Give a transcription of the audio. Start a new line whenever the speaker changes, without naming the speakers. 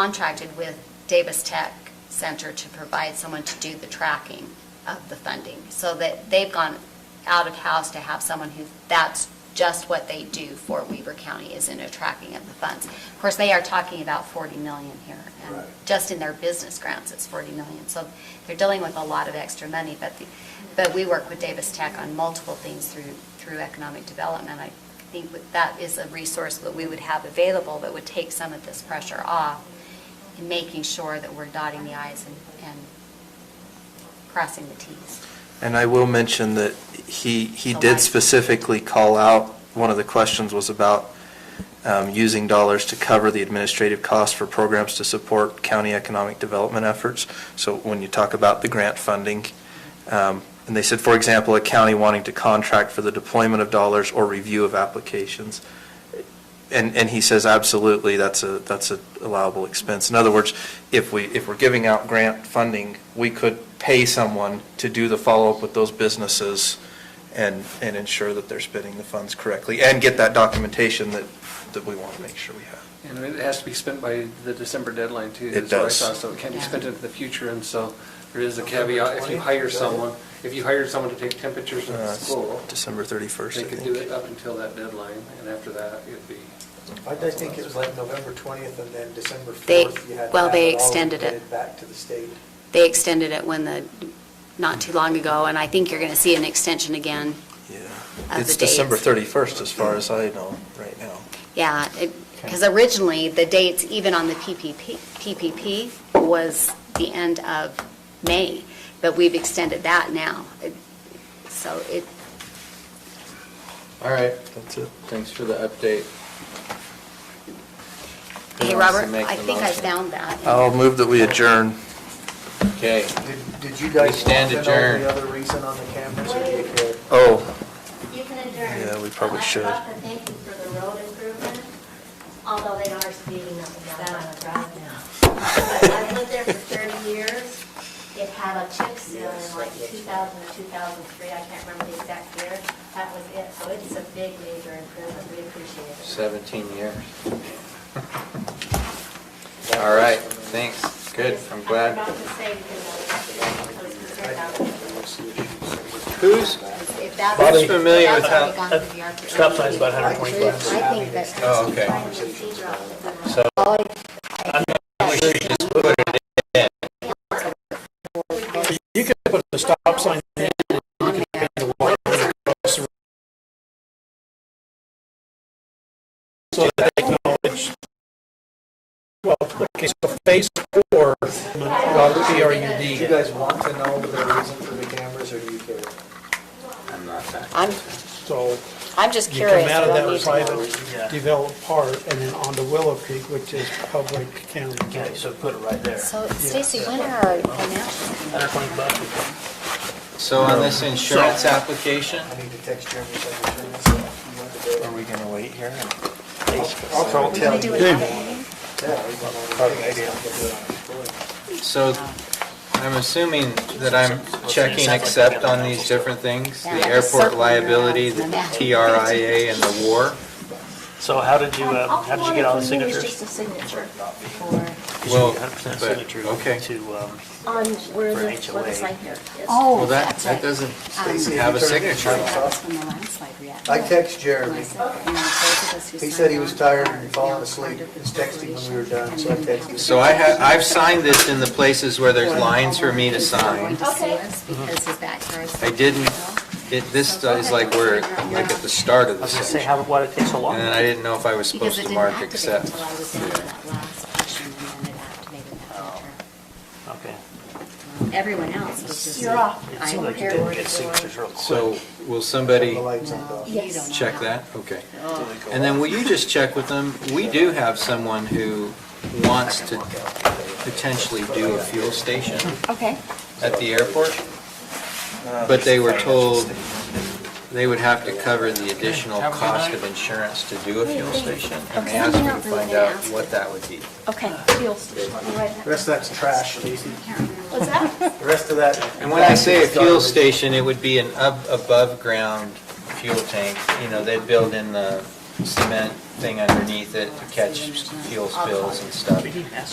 contracted with Davis Tech Center to provide someone to do the tracking of the funding, so that they've gone out of house to have someone who, that's just what they do for Weaver County, is in a tracking of the funds. Of course, they are talking about 40 million here, and
Right.
just in their business grants, it's 40 million. So they're dealing with a lot of extra money, but, the- but we work with Davis Tech on multiple things through, through economic development. I think that that is a resource that we would have available that would take some of this pressure off in making sure that we're dotting the i's and, and crossing the t's.
And I will mention that he, he
The
did
light.
specifically call out, one of the questions was about um, using dollars to cover the administrative costs for programs to support county economic development efforts. So when you talk about the grant funding, um, and they said, for example, a county wanting to contract for the deployment of dollars or review of applications. And, and he says, absolutely, that's a, that's a allowable expense. In other words, if we, if we're giving out grant funding, we could pay someone to do the follow-up with those businesses and, and ensure that they're spending the funds correctly and get that documentation that, that we want to make sure we have.
And it has to be spent by the December deadline, too.
It
that's what I
does.
saw, So it can't be
Yeah.
spent into the future, and so there is a
November
caveat, if you
20th,
hire
is that it?
someone, if you hired someone to take temperatures in
Uh,
the
it's
school,
December 31st, I
they
think.
could do it up until that deadline, and after that, it'd be.
I I think it was like November 20th and then December
They-
4th. you had to
well,
have
they
all
extended it.
submitted Back to the state.
They extended it when the, not too long ago, and I think you're going to see an extension again.
Yeah.
Of
It's
the dates.
December 31st, as far as I know, right now.
Yeah, because originally, the dates, even on the PPP, PPP was the end of May, but we've extended that now. It- So it,
All right,
That's it.
thanks for the update. Who
hey,
wants to
Robert,
make
I
the
think I
motion?
found that.
I'll move that we adjourn.
Okay,
Did- Did you
We
guys want
stand
to know
adjourned.
the other reason on the cameras or do you care?
Oh,
You can adjourn.
Yeah, we probably
I'd like
should.
to thank you for the road improvement, although they are speeding up and down on the drive now. But I've lived there for 30 years. It had a chip seal in like 2000 or 2003, I can't remember the exact year. That was it, so it's a big major improvement, we appreciate it.
17 years. All right, thanks, good, I'm
I
glad.
forgot to say, because I was concerned about it.
Who's,
If that-
Bobby. familiar with
that's
how-
already gone through the architect.
Stop sign's about 125.
I think that.
oh, okay. So,
put the stop sign in, you can pay the water across the road. So that they know it's, well, okay, so phase four,
Robert,
P R U
Do you
D.
guys want to know the reason for the cameras or do you care?
I'm,
So
I'm just
you come
curious. I
out of
don't need
that
to know.
private developed part and then onto Willow Creek, which is public county.
Okay, so put it right there.
So Stacy, when are our financials?
Hundred twenty bucks.
so on this insurance application,
I need to text Jeremy. so I can turn this off. You want to do it?
are we going to wait here?
I'll call
We're going to do an audit meeting?
Yeah, we want all the things. I'll get it on the floor.
so I'm assuming that I'm checking accept on these different things? The airport liability, the TRIA, and the war?
So how did
Um,
you, uh, how did you get all the signatures?
Just a signature
Well,
100%
but-
signature
okay.
To, um,
on where
For
the
HOA.
website here is.
Oh,
Well, that,
that's
that
right.
doesn't
Stacy,
have a
if you turn the
signature.
lights
That was
off.
from the landslide reaction.
I text Jeremy. He
He
said he was tired and falling asleep. He was texting when we were done, so I texted him.
So I have, I've signed this in the places where there's lines for me to sign.
Okay.
Because his backyard's-
I didn't, it, this uh, is like where, like at the start of
I
the
was gonna say,
section.
how, why did it take so long?
And then I didn't know if I was
Because
supposed
it
to
didn't
mark
activate
accept.
until I was down to that last portion, and then it activated that
Oh.
filter.
Okay.
Everyone else was just.
You're off.
It
I
seemed like you
heard
didn't
it.
get signatures real quick.
So will
Turn
somebody
the lights on, dog.
You don't know
check
how.
that? Okay.
Oh.
And then will you just check with them? We do have someone who wants to potentially do a fuel station
Okay.
at the airport,
Uh,
but they were told they would have to cover the additional cost of insurance to do a fuel station. And they asked me to find out what that would be.
Okay,
The Rest of that's trash, Stacy.
What's that?
The rest of that.
And when I say a fuel station, it would be an up, above-ground fuel tank. You know, they'd build in the cement thing underneath it to catch fuel spills and stuff.